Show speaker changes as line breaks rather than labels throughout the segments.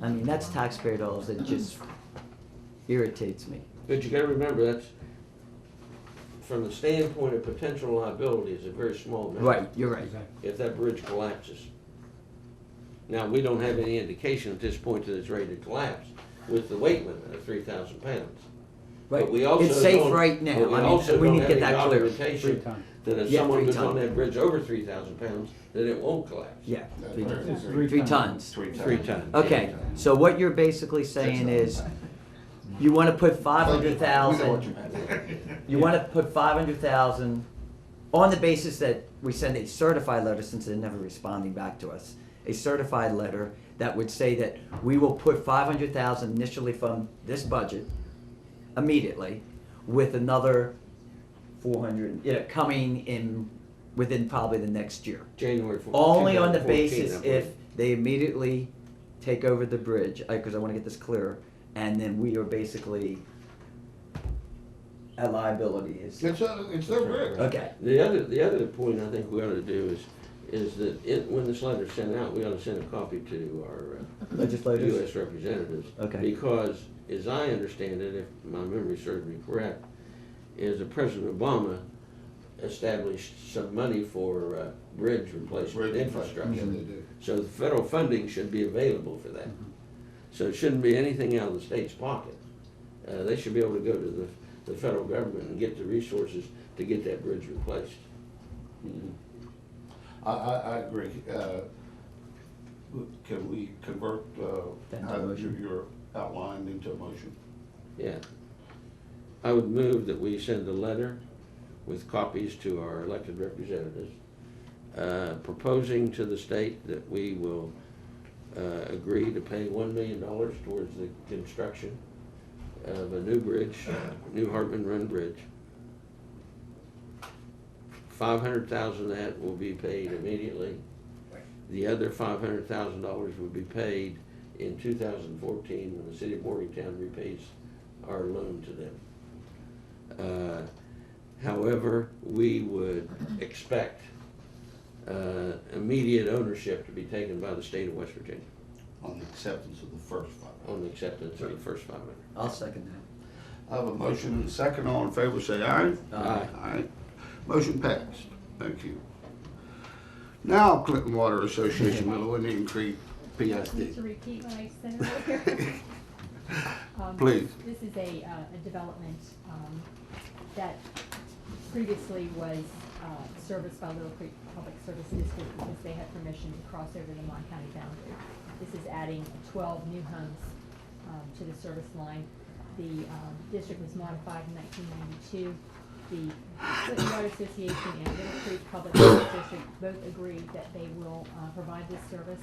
I mean, that's taxpayer dollars that just irritates me.
But you gotta remember, that's, from the standpoint of potential liability, is a very small amount.
Right, you're right.
If that bridge collapses. Now, we don't have any indication at this point that it's ready to collapse with the weight limit of three thousand pounds. But
Right.
we also
It's safe
don't-
right now.
but we
I mean,
also
we
don't
need to
have
get
any
that clear.
documentation
Free time.
That if
Yeah,
someone
free
goes on
time.
that bridge over three thousand pounds, that it won't collapse.
Yeah, three,
It's
three tons.
Three times.
Three times.
Okay, so what you're basically saying is, you wanna put five hundred thousand, you wanna put five hundred thousand on the basis that we send a certified letter, since they're never responding back to us, a certified letter that would say that we will put five hundred thousand initially from this budget immediately, with another four hundred, yeah, coming in, within probably the next year.
January fourteenth.
Only on the basis if they immediately take over the bridge, because I want to get this clear, and then we are basically at liability is,
It's, a- it's their bridge.
okay,
The other, the other point I think we ought to do is, is that it, when this letter's sent out, we ought to send a copy to our uh,
legislators?
US representatives.
Okay.
Because, as I understand it, if my memory serves me correct, is that President Obama established some money for uh, bridge replacement
Yeah,
infrastructure.
Mm-hmm.
they do.
So the federal funding should be available for that. So it shouldn't be anything out of the state's pocket. Uh, They should be able to go to the, the federal government and get the resources to get that bridge replaced.
Mm-hmm. I, I, I agree. Uh, Can we convert, uh,
That
how you-
motion.
your outline into a motion?
Yeah. I would move that we send a letter with copies to our elected representatives, uh, proposing to the state that we will uh, agree to pay one million dollars towards the construction of a new bridge, new Hartman Run Bridge. Five hundred thousand of that will be paid immediately. The other five hundred thousand dollars will be paid in two thousand fourteen when the city of Morgantown repays our loan to them. Uh, However, we would expect uh, immediate ownership to be taken by the state of West Virginia
On the acceptance of the first five.
on the acceptance of the first five hundred.
I'll second
I have a motion and a second. All in favor, say aye.
Aye.
Aye. Motion passed. Thank you. Now Clinton Water Association, Little Indian Creek,
Need to
PSD.
repeat what I said earlier. Um,
Please.
This is a, uh, a development, um, that previously was, uh, serviced by Little Creek Public Service District because they had permission to cross over the Mon County boundary. This is adding twelve new homes, um, to the service line. The, um, district was modified in nineteen ninety-two. The Clinton Water Association and Little Creek Public Service District both agreed that they will, uh, provide this service.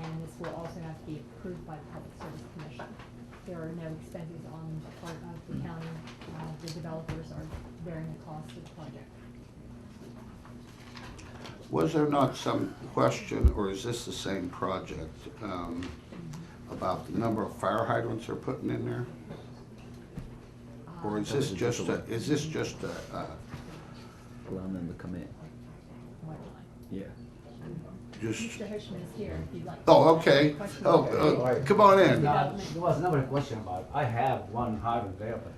And this will also have to be approved by the Public Service Commission. There are no expenses on the part of the county. Uh, The developers are bearing the cost of the project.
Was there not some question, or is this the same project, um, about the number of fire hydrants they're putting in there?
Uh,
Or is this just a, is this just a, uh,
that, allow them to come in, yeah.
just,
Mr. Hirschman is here if you'd like.
oh, okay,
Question.
oh, uh, come on in.
No, There was never a question about it. I have one hydrant there, but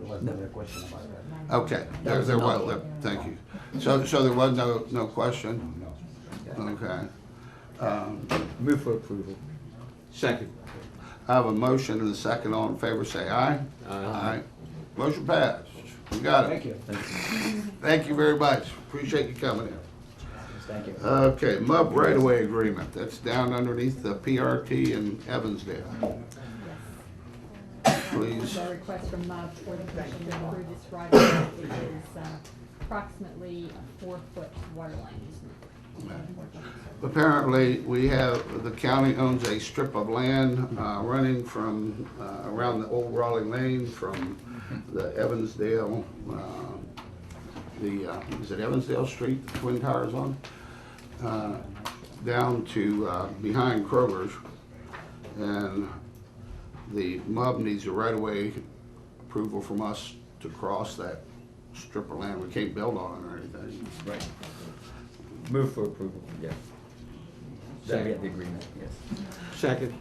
there was never a question about that.
Okay, there, there was, there- thank you. So, so there was no, no question?
No.
Okay. Um,
Move for approval.
Second.
I have a motion and a second, all in favor, say aye. Motion passed, we got
Thank
it.
you.
Thank you very much, appreciate you coming in.
Thank you.
Okay, MUB right-of-way agreement, that's down underneath the PRT in Evansdale. Please.
The Uh, request from MUB for the commission to approve this right of way. It is uh, approximately a four-foot water line easement.
Apparently, we have, the county owns a strip of land uh, running from, uh, around the old Raleigh Lane from the Evansdale, uh, the, uh, is it Evansdale Street, the Twin Towers on? Uh, Down to, uh, behind Kroger's. And the MUB needs a right-of-way approval from us to cross that strip of land. We can't build on it or anything.
Right. Move for approval, yeah. So we have the agreement, yes.
Second.